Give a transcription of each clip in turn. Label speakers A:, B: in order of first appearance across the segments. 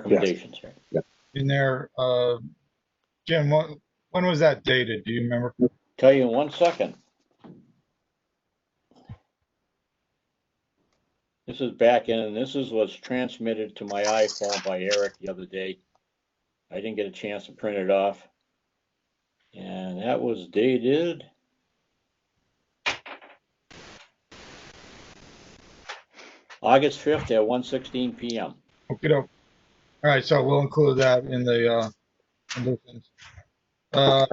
A: recommendations here.
B: in there. Uh, Jim, what, when was that dated? Do you remember?
A: Tell you in one second. This is back in, and this is was transmitted to my iPhone by Eric the other day. I didn't get a chance to print it off. And that was dated. August fifth at one sixteen PM.
B: Okay, all right, so we'll include that in the, uh, conditions. Uh,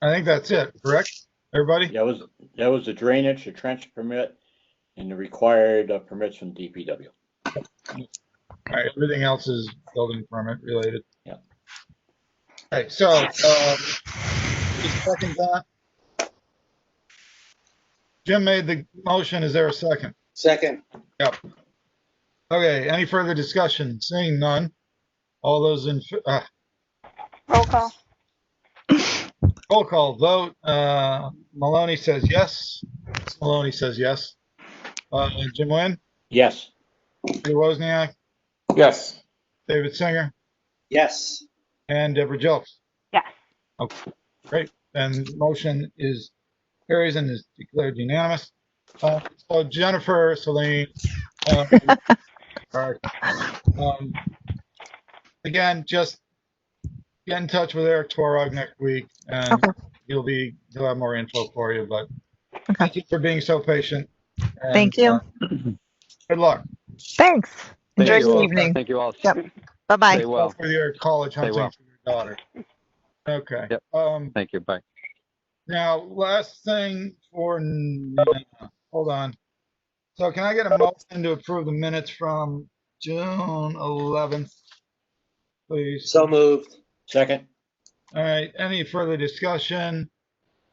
B: I think that's it, correct? Everybody?
A: That was, that was the drainage, the trench permit, and the required uh, permits from DPW.
B: All right, everything else is building permit related.
A: Yeah.
B: All right, so, uh, just second that. Jim made the motion. Is there a second?
C: Second,
B: Okay, any further discussion? Seeing none. All those in, f- uh,
D: Roll call.
B: Roll call vote. Uh, Maloney says yes. Maloney says yes. Uh, Jim Nguyen,
A: Yes,
B: Peter Wozniak,
E: Yes.
B: David Singer,
C: yes,
B: and Deborah Jelks.
D: Yes.
B: Okay, great. And motion is carries and is declared unanimous. Uh, so Jennifer, Celine, um, sorry. Um, again, just get in touch with Eric Twarog next week and
F: Okay.
B: he'll be, he'll have more info for you, but
F: Okay.
B: thank you for being so patient. and,
F: Thank you.
B: uh, Good luck
F: Thanks. Enjoy
E: Thank you
F: your
E: all.
F: evening.
E: Thank you all.
F: Yep. Bye-bye.
E: Stay well.
B: for your college hunting
E: well.
B: for your daughter. Okay.
E: Yep.
B: Um,
E: Thank you. Bye.
B: Now, last thing for, Nina. hold on. So can I get a motion to approve the minutes from June eleventh? Please.
C: so moved,
A: second,
B: All right, any further discussion?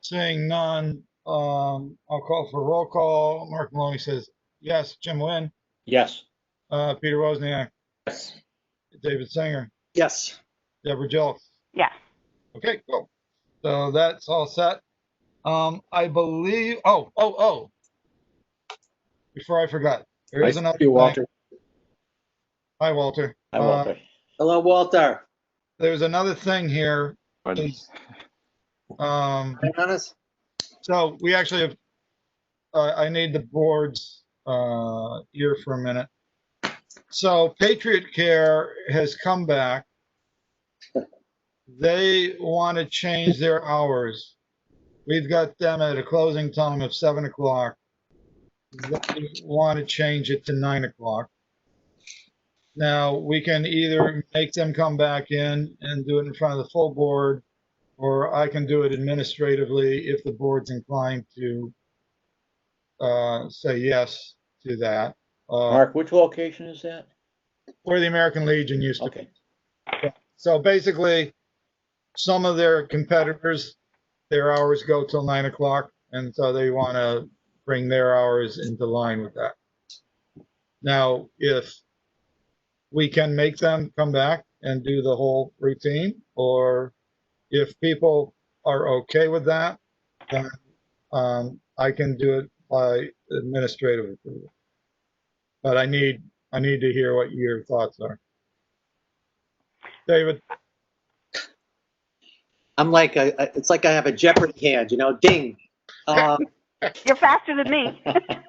B: Seeing none, um, I'll call for roll call. Mark Maloney says yes. Jim Nguyen,
A: yes,
B: uh, Peter Wozniak,
E: Yes.
B: David Singer,
C: yes.
B: Deborah Jelks.
D: Yes.
B: Okay, cool. So that's all set. Um, I believe, oh, oh, oh. Before I forgot, there is another. thing. Hi, Walter.
A: I
B: Uh,
A: will. agree.
C: Hello, Walter.
B: There's another thing here.
E: Pardon.
B: is, Um,
C: Hang on us?
B: so we actually have, uh, I need the board's, uh, ear for a minute. So Patriot Care has come back. They want to change their hours. We've got them at a closing time of seven o'clock. They want to change it to nine o'clock. Now, we can either make them come back in and do it in front of the full board, or I can do it administratively if the board's inclined to uh, say yes to that. Uh,
A: Mark, which location is that?
B: Where the American Legion used to.
A: Okay,
B: So basically, some of their competitors, their hours go till nine o'clock, and so they want to bring their hours into line with that. Now, if we can make them come back and do the whole routine, or if people are okay with that, then um, I can do it by administrative approval. But I need, I need to hear what your thoughts are. David?
C: I'm like, a- a- it's like I have a Jeopardy hand, you know, ding. Uh,
D: You're faster than me.
C: uh,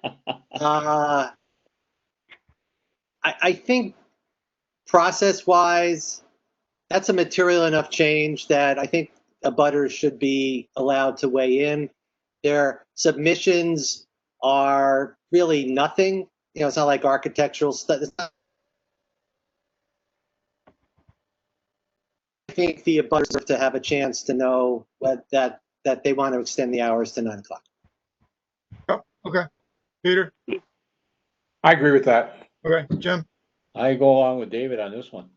C: I, I think process-wise, that's a material enough change that I think abutters should be allowed to weigh in. Their submissions are really nothing. You know, it's not like architectural stuff. I think the abutters have to have a chance to know what, that that they want to extend the hours to nine o'clock.
B: Peter?
E: I agree with that.
B: Okay, Jim?
A: I go along with David on this one.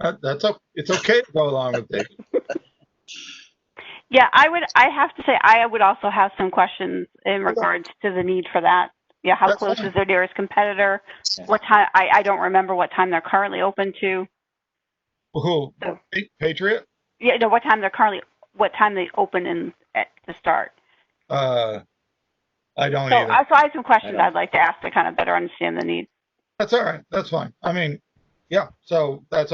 B: Uh, That's, o- it's okay to go along with David.
D: Yeah, I would, I have to say, I would also have some questions in regards to the need for that. Yeah, how
B: That's
D: close
B: fine.
D: is their nearest competitor?
A: Yeah.
D: What time, I, I don't remember what time they're currently open to.
B: Who?
D: So-
B: Pa- Patriot?
D: Yeah, no, what time they're currently, what time they open and, at, to start.
B: Uh, I don't
D: So,
B: either.
D: I- so I have some questions
A: don't-
D: I'd like to ask to kind of better understand the need.
B: That's all right. That's fine. I mean, yeah, so that's